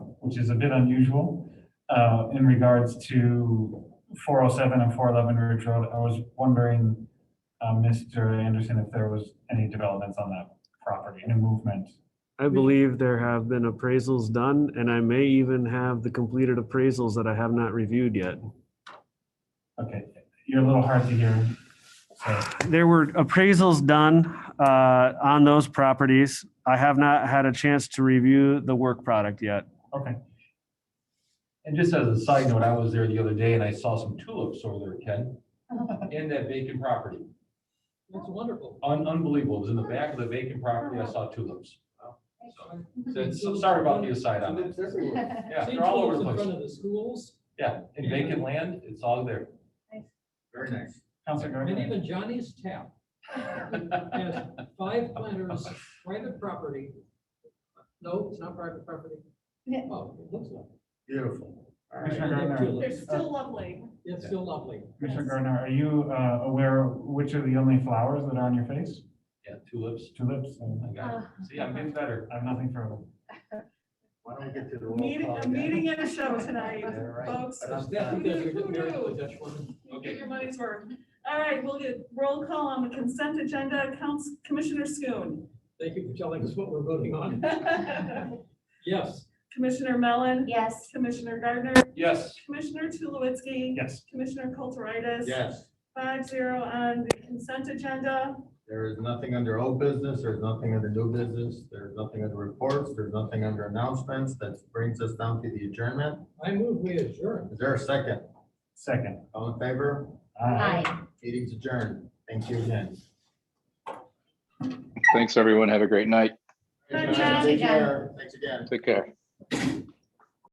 which is a bit unusual, uh, in regards to four oh seven and four eleven Ridge Road. I was wondering, uh, Mr. Anderson, if there was any developments on that property, any movement? I believe there have been appraisals done, and I may even have the completed appraisals that I have not reviewed yet. Okay, you're a little hard to hear. so- There were appraisals done uh, on those properties. I have not had a chance to review the work product yet. Okay, And just as a side note, I was there the other day and I saw some tulips over there, Ken, in that vacant property. That's wonderful. Un- Unbelievable. It was in the back of the vacant property. I saw tulips. So, so it's- so sorry about the aside on that. Tulips everywhere. Yeah, Same they're all over tulips the In front place. of the schools, Yeah, in vacant land, it's all there. Very nice. Counselor and Gardner. even Johnny's Tap has five planters, private property. No, it's not private property. Yeah. Oh, it looks like, Beautiful. All right. Commissioner Gardner, They're They're still lovely. it's still lovely. Commissioner Gardner, are you, uh, aware which are the only flowers that are on your face? Yeah, tulips. Tulips? I and- uh, got it. See, I'm getting better. I have nothing further. Why don't we get to the roll Meeting, call a again? meeting and a show tonight, All right. folks. But That's I'm because done. you're getting married to a Dutch woman. You Get your money's worth. All right, we'll get roll call on the consent agenda. Counts, Commissioner Schoon. Thank you for telling us what we're voting on. Yes, Commissioner Mellon. Yes. Commissioner Gardner. Yes. Commissioner Tulowitzki. Yes. Commissioner Kulturitis. Yes, Five zero on the consent agenda. there is nothing under old business, there's nothing under new business, there's nothing under reports, there's nothing under announcements. That brings us down to the adjournment. I move we adjourn. Is there a second? Second. All in favor? Aye. Meeting's adjourned. Thank you again. Thanks, everyone. Have a great night. Good Take job. care. Thanks again. Take care.